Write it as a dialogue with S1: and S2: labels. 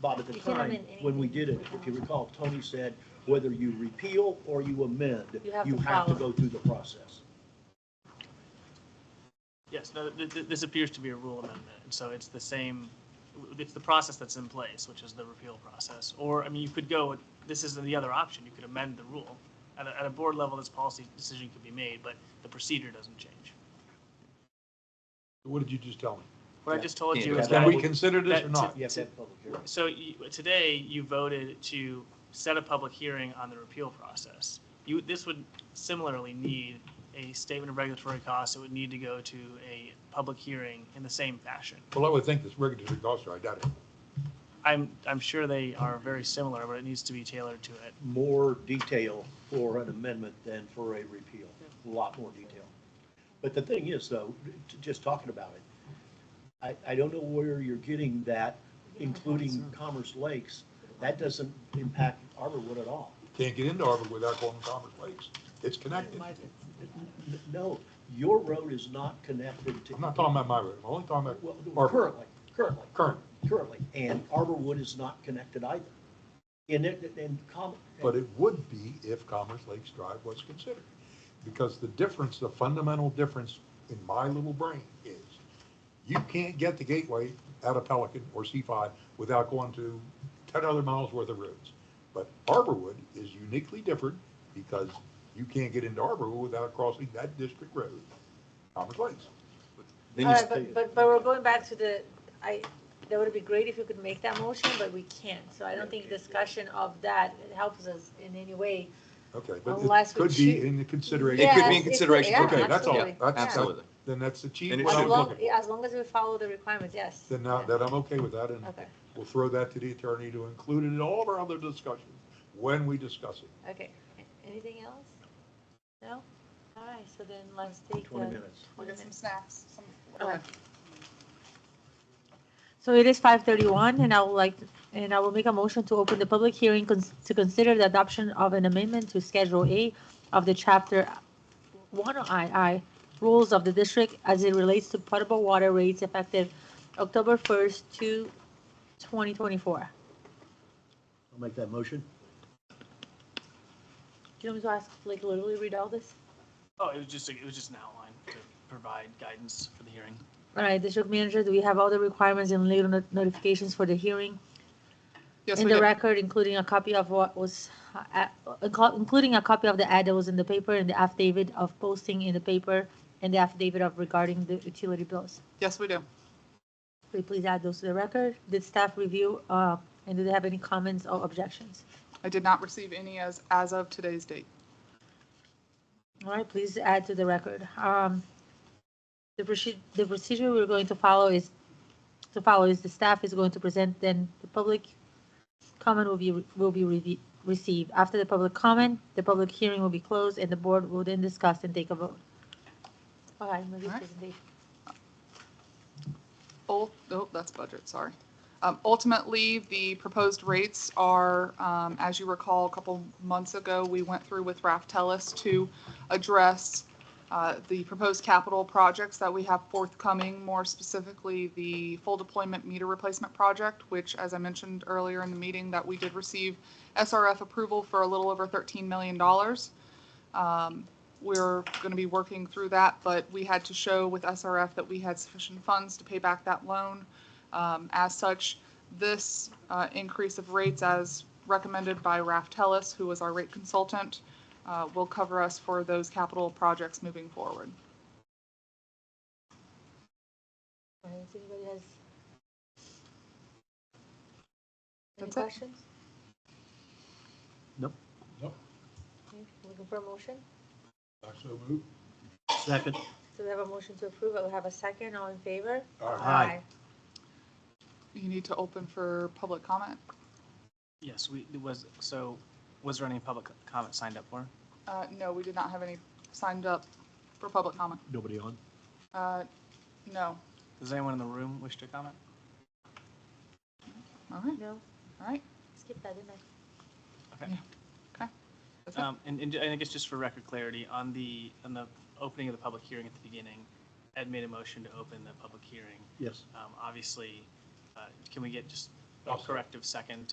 S1: Bob, at
S2: You
S1: the
S2: can
S1: time,
S2: amend
S1: when we did it, if you recall, Tony said, whether you repeal or you amend,
S2: You have
S1: you
S2: to
S1: have to
S2: follow.
S1: go through the process.
S3: Yes, no, th- th- this appears to be a rule amendment, and so it's the same, it's the process that's in place, which is the repeal process. Or, I mean, you could go, this is the other option, you could amend the rule. At a, at a board level, this policy decision could be made, but the procedure doesn't change.
S4: What did you just tell me?
S3: What I just told you
S1: Yeah,
S3: is
S1: that
S4: Can
S3: that,
S4: we consider this or
S3: that-
S4: not?
S1: You have to have public hearing.
S3: so you- today, you voted to set a public hearing on the repeal process. You, this would similarly need a statement of regulatory costs, it would need to go to a public hearing in the same fashion.
S4: Well, I would think this regulatory costs are identical.
S3: I'm, I'm sure they are very similar, but it needs to be tailored to it.
S1: more detail for an amendment than for a repeal, a lot more detail. But the thing is, though, t- just talking about it, I, I don't know where you're getting that, including Commerce Lakes. That doesn't impact Arborwood at all.
S4: Can't get into Arbor without going to Commerce Lakes. It's connected. I'm
S1: N- No, your road is not connected to.
S4: not talking about my road. I'm only talking
S1: Well,
S4: about Arbor,
S1: Currently, currently.
S4: current.
S1: Currently, and Arborwood is not connected either. And it, and Com.
S4: But it would be if Commerce Lakes Drive was considered. Because the difference, the fundamental difference in my little brain is you can't get the gateway out of Pelican or C5 without going to 10 other miles worth of roads. But Arborwood is uniquely different because you can't get into Arborwood without crossing that district road, Commerce Lakes.
S1: Then
S2: All
S1: you
S2: right,
S1: stay-
S2: but, but, but we're going back to the, I, that would be great if you could make that motion, but we can't. So I don't think discussion of that helps us in any way.
S4: Okay, but
S2: Unless
S4: it
S2: we
S4: could be
S2: choose-
S4: in the consideration.
S5: It could be
S2: Yes,
S5: in consideration for
S2: yeah,
S4: Okay, that's all.
S2: absolutely,
S4: That's-
S2: yeah.
S5: Absolutely.
S4: Then that's the chief.
S5: And it
S4: what
S5: should
S4: I'm
S2: As
S5: be.
S4: looking
S2: long,
S4: for.
S2: as long as we follow the requirements, yes.
S4: Then now, that I'm okay with that, and
S2: Okay,
S4: we'll throw that to the attorney to include it in all of our other discussions when we discuss it.
S2: okay. Anything else? No? All right, so then let's take
S1: Twenty
S2: the.
S1: minutes.
S6: We'll get some snacks, some.
S2: Okay. So it is five thirty-one, and I would like, and I will make a motion to open the public hearing cons- to consider the adoption of an amendment to Schedule A of the Chapter one II rules of the district as it relates to potable water rates effective October first to twenty twenty-four.
S1: I'll make that motion.
S2: Do you want me to ask, like, literally read all this?
S3: Oh, it was just, it was just an outline to provide guidance for the hearing.
S2: All right, district manager, do we have all the requirements and legal not- notifications for the hearing?
S5: Yes,
S2: in
S5: we
S2: the
S5: do.
S2: record, including a copy of what was, uh, uh, inclu- including a copy of the ad that was in the paper and the affidavit of posting in the paper and the affidavit of regarding the utility bills.
S5: Yes, we do.
S2: Will you please add those to the record? Did staff review, uh, and do they have any comments or objections?
S6: I did not receive any as, as of today's date.
S2: All right, please add to the record. Um, The procedure, the procedure we're going to follow is, to follow is the staff is going to present, then the public comment will be, will be reve- received. After the public comment, the public hearing will be closed, and the board will then discuss and take a vote. All right, Marie's
S6: All right.
S2: presentation.
S6: Ul- oh, that's budget, sorry. Um, ultimately, the proposed rates are, um, as you recall, a couple months ago, we went through with Raff Tellis to address, uh, the proposed capital projects that we have forthcoming, more specifically, the full deployment meter replacement project, which, as I mentioned earlier in the meeting, that we did receive SRF approval for a little over thirteen million dollars. Um, We're going to be working through that, but we had to show with SRF that we had sufficient funds to pay back that loan. Um, As such, this uh, increase of rates as recommended by Raff Tellis, who was our rate consultant, uh, will cover us for those capital projects moving forward.
S2: All right, Does anybody has any
S6: That's it.
S2: questions?
S1: Nope.
S4: Nope.
S2: Okay, Looking for a motion?
S4: I so move.
S1: Second.
S2: So we have a motion to approve. I will have a second. All in favor?
S1: Aye.
S6: You need to open for public comment.
S3: Yes, we, it was, so was there any public comment signed up for?
S6: Uh, No, we did not have any signed up for public comment.
S1: Nobody on?
S6: Uh, No.
S3: Does anyone in the room wish to comment?
S6: All right,
S2: No,
S6: all right.
S2: skip that, didn't I?
S6: That's it.
S3: Um, and, and I guess just for record clarity, on the, on the opening of the public hearing at the beginning, Ed made a motion to open the public hearing.
S1: Yes.
S3: Um, obviously, uh, can we get just I'll corrective second,